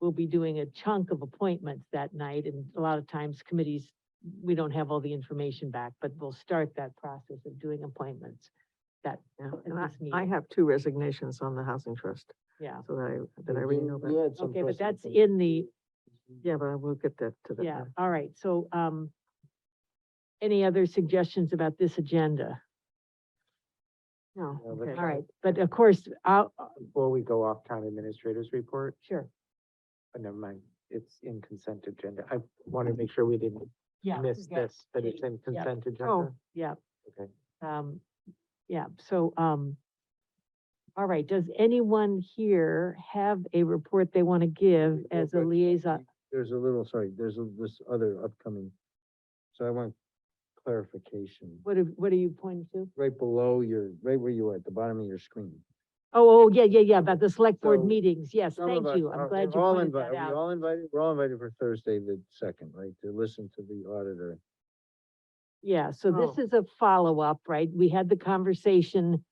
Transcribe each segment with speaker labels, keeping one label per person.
Speaker 1: we'll be doing a chunk of appointments that night, and a lot of times committees, we don't have all the information back, but we'll start that process of doing appointments that,
Speaker 2: Yeah,
Speaker 1: at
Speaker 2: and I-
Speaker 1: this
Speaker 2: I
Speaker 1: meeting,
Speaker 2: have two resignations on the housing trust,
Speaker 1: yeah.
Speaker 2: so that I, that
Speaker 1: Mm-hmm.
Speaker 2: I
Speaker 3: You-
Speaker 2: already know
Speaker 3: You
Speaker 2: about.
Speaker 3: had some.
Speaker 1: Okay, but that's
Speaker 3: personal-
Speaker 1: in the,
Speaker 2: Yeah, but I will get that to them.
Speaker 1: yeah, all right, so, um, any other suggestions about this agenda? No,
Speaker 3: Yeah, but-
Speaker 2: Okay.
Speaker 1: all right, but of course, I'll, uh,
Speaker 3: Before we go off town administrators report,
Speaker 1: sure,
Speaker 3: but never mind, it's in consent agenda. I want to make sure we didn't
Speaker 1: yeah.
Speaker 3: miss
Speaker 1: yeah.
Speaker 3: this, that it's in consent
Speaker 2: Oh,
Speaker 3: agenda.
Speaker 1: Yeah.
Speaker 3: Okay.
Speaker 1: Um, yeah, so, um, all right, does anyone here have a report they want to give
Speaker 4: Well,
Speaker 1: as a
Speaker 4: but
Speaker 1: liaison?
Speaker 4: There's a little, sorry, there's a- this other upcoming, so I want clarification.
Speaker 1: What, have- what are you pointing to?
Speaker 4: Right below your, right where you are, at the bottom of your screen.
Speaker 1: Oh, oh, yeah, yeah, yeah, about the select board
Speaker 4: So,
Speaker 1: meetings, yes,
Speaker 4: Some of
Speaker 1: thank
Speaker 4: us
Speaker 1: you,
Speaker 4: are-
Speaker 1: I'm glad you
Speaker 4: we're all
Speaker 1: pointed
Speaker 4: invi-
Speaker 1: that
Speaker 4: Are we
Speaker 1: out.
Speaker 4: all invited? We're all invited for Thursday the second, right, to listen to the auditor.
Speaker 1: Yeah, so this
Speaker 2: Oh.
Speaker 1: is a follow-up, right? We had the conversation,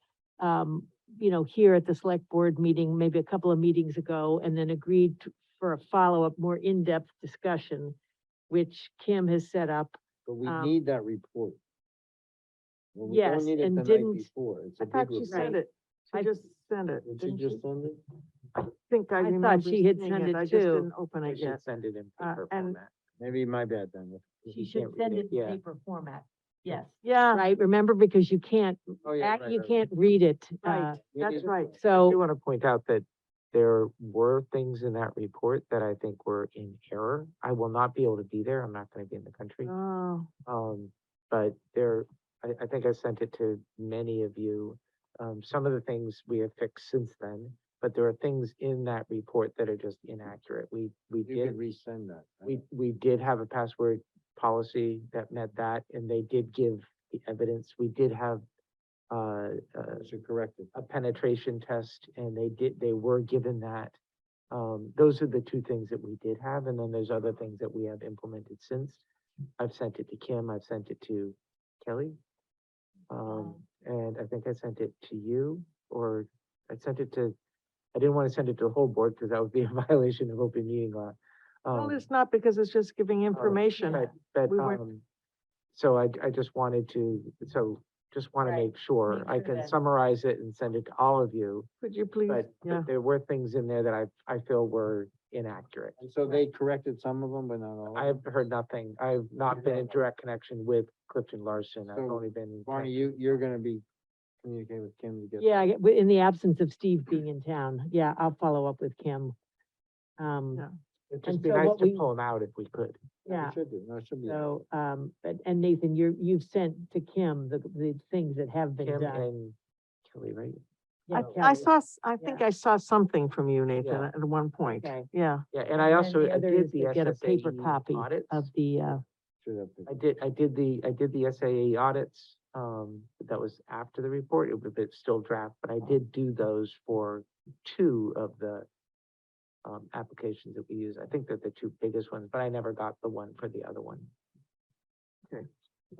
Speaker 1: um, you know, here at the select board meeting, maybe a couple of meetings ago, and then agreed to- for a follow-up, more in-depth discussion, which Kim has set up
Speaker 4: But we
Speaker 1: Um,
Speaker 4: need that report. Well, we don't
Speaker 1: yes,
Speaker 4: need it
Speaker 1: and
Speaker 4: the night
Speaker 1: didn't-
Speaker 4: Before, it's a
Speaker 2: I
Speaker 4: big
Speaker 2: thought
Speaker 4: report.
Speaker 2: she sent it.
Speaker 1: I-
Speaker 2: She just sent it.
Speaker 4: Did she
Speaker 2: didn't
Speaker 4: just send it?
Speaker 2: Think I
Speaker 1: I thought
Speaker 2: remember.
Speaker 1: she had
Speaker 2: seeing
Speaker 1: sent it
Speaker 2: I just
Speaker 1: too.
Speaker 2: didn't open
Speaker 3: We
Speaker 2: it
Speaker 3: should
Speaker 2: yet.
Speaker 3: send it in
Speaker 2: Uh,
Speaker 3: paper
Speaker 2: and-
Speaker 3: format.
Speaker 4: Maybe my bad then. if- if
Speaker 1: She
Speaker 4: you
Speaker 1: should
Speaker 4: can't read
Speaker 1: send it in
Speaker 3: yeah.
Speaker 1: paper format, yes,
Speaker 2: Yeah,
Speaker 1: right, remember, because you can't,
Speaker 4: Oh, yeah,
Speaker 1: act-
Speaker 4: right,
Speaker 1: you
Speaker 4: right, right.
Speaker 1: can't read it. uh,
Speaker 2: right,
Speaker 4: We
Speaker 2: that's
Speaker 4: need-
Speaker 2: right.
Speaker 3: I
Speaker 1: So,
Speaker 3: do want to point out that there were things in that report that I think were in error. I will not be able to be there. I'm not going to be in the country.
Speaker 2: Oh,
Speaker 3: Um, but there, I, I think I sent it to many of you. Um, some of the things we have fixed since then, but there are things in that report that are just inaccurate. We, we
Speaker 4: You
Speaker 3: did
Speaker 4: could resend that. I
Speaker 3: we, we did have a password policy that met that, and they did give the evidence. We did have uh, uh,
Speaker 4: don't- I should correct it.
Speaker 3: a penetration test, and they did, they were given that. Um, those are the two things that we did have, and then there's other things that we have implemented since. I've sent it to Kim, I've sent it to Kelly. Um, and I think I sent it to you, or I sent it to, I didn't want to send it to the whole board, because that would be a violation of open meeting law.
Speaker 2: well,
Speaker 3: Um, Oh,
Speaker 2: it's not because it's just giving information.
Speaker 3: but, but,
Speaker 2: we weren't-
Speaker 3: um, so I, I just wanted to, so just want to
Speaker 1: Right,
Speaker 3: make sure, I
Speaker 1: sure
Speaker 3: can
Speaker 1: that-
Speaker 3: summarize it and send it to all of you.
Speaker 2: Could you please?
Speaker 3: But,
Speaker 2: Yeah,
Speaker 3: but there were things in there that I, I feel were inaccurate.
Speaker 4: And so they corrected some of them, but not all.
Speaker 3: I have heard nothing. I've not been in direct connection with Clifton Larson. I've
Speaker 4: So,
Speaker 3: only been. in
Speaker 4: Barney, you,
Speaker 3: connect-
Speaker 4: you're gonna be communicating with Kim to get.
Speaker 1: yeah, I- in the absence of Steve being in town, yeah, I'll follow up with Kim.
Speaker 2: Yeah.
Speaker 1: Um,
Speaker 3: It'd
Speaker 1: and
Speaker 3: just be
Speaker 1: so
Speaker 3: nice
Speaker 1: what
Speaker 3: to
Speaker 1: we-
Speaker 3: pull them out if we could.
Speaker 1: yeah,
Speaker 4: We should do, no, it should be.
Speaker 1: so, um, but, and Nathan, you're, you've sent to Kim the, the things that have been
Speaker 3: Kim
Speaker 1: done.
Speaker 3: and Kelly, right?
Speaker 1: Yeah,
Speaker 2: I, I
Speaker 1: Kelly.
Speaker 2: saw, s- I think I saw something from you, Nathan,
Speaker 3: Yeah.
Speaker 2: at at one point.
Speaker 1: Okay.
Speaker 2: Yeah,
Speaker 3: Yeah,
Speaker 1: And
Speaker 3: and I
Speaker 1: then
Speaker 3: also,
Speaker 1: the
Speaker 3: I
Speaker 1: other
Speaker 3: did
Speaker 1: is to
Speaker 3: the
Speaker 1: get a paper
Speaker 3: SSAE
Speaker 1: copy
Speaker 3: audits.
Speaker 1: Of the, uh,
Speaker 4: Should have to-
Speaker 3: I did, I did the, I did the SAA audits, um, that was after the report, it was, it's still draft, but I did do those for two of the um, applications that we use, I think they're the two biggest ones, but I never got the one for the other one.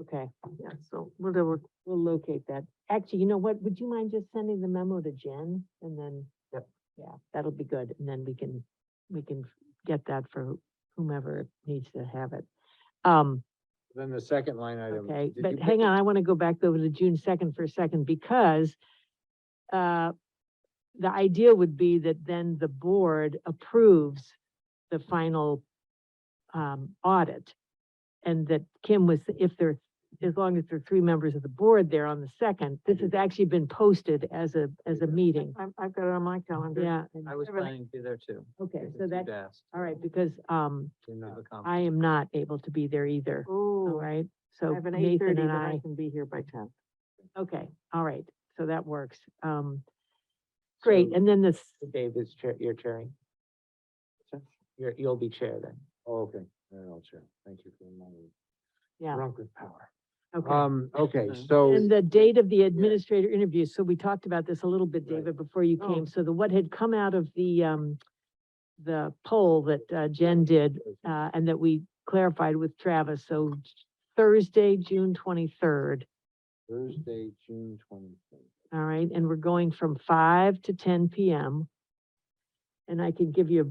Speaker 1: okay,
Speaker 2: yeah, so we'll, do-
Speaker 1: we'll locate that. Actually, you know what, would you mind just sending the memo to Jen and then?
Speaker 3: Yep.
Speaker 1: Yeah, that'll be good, and then we can, we can get that for whomever needs to have it. Um,
Speaker 4: Then the second line item.
Speaker 1: Okay,
Speaker 4: did you
Speaker 1: but
Speaker 4: pick
Speaker 1: hang
Speaker 4: it?
Speaker 1: on, I want to go back over to June second for a second because uh, the idea would be that then the board approves the final um, audit. And that Kim was, if there, as long as there are three members of the board there on the second, this has actually been posted as a, as a meeting.
Speaker 2: I've, I've got it on my calendar.
Speaker 1: Yeah,
Speaker 5: I was
Speaker 2: Everything.
Speaker 5: planning to be there too.
Speaker 1: okay,
Speaker 5: if
Speaker 1: so
Speaker 5: you'd
Speaker 1: that,
Speaker 5: asked.
Speaker 1: all right, because um,
Speaker 4: You're
Speaker 5: We've
Speaker 4: not.
Speaker 5: accomplished.
Speaker 1: I am not able to be there either, all
Speaker 2: Oh, I
Speaker 1: right? So
Speaker 2: have an eight
Speaker 1: Nathan
Speaker 2: thirty,
Speaker 1: and
Speaker 2: but
Speaker 1: I.
Speaker 2: I can be here by ten.
Speaker 1: Okay, all right, so that works. Um, great, and then this,
Speaker 3: Dave is chair, you're chairing.
Speaker 4: Sure.
Speaker 3: You're, you'll be chair then.
Speaker 4: Oh, okay, all right, I'll check. Thank you for reminding. me.
Speaker 1: Yeah.
Speaker 4: Drunk with power.
Speaker 1: okay. Mm-hmm.
Speaker 4: Um, okay,
Speaker 5: Mhm.
Speaker 4: so.
Speaker 1: And the date of the administrator interview, so we talked about this a little bit,
Speaker 4: Right.
Speaker 1: David, before you
Speaker 2: Oh.
Speaker 1: came, so the, what had come out of the, um, the poll that uh, Jen did, uh, and that we clarified with Travis, so Thursday, June twenty-third,
Speaker 4: Thursday, June twenty-third.
Speaker 1: all right, and we're going from five to ten PM. And I can give you a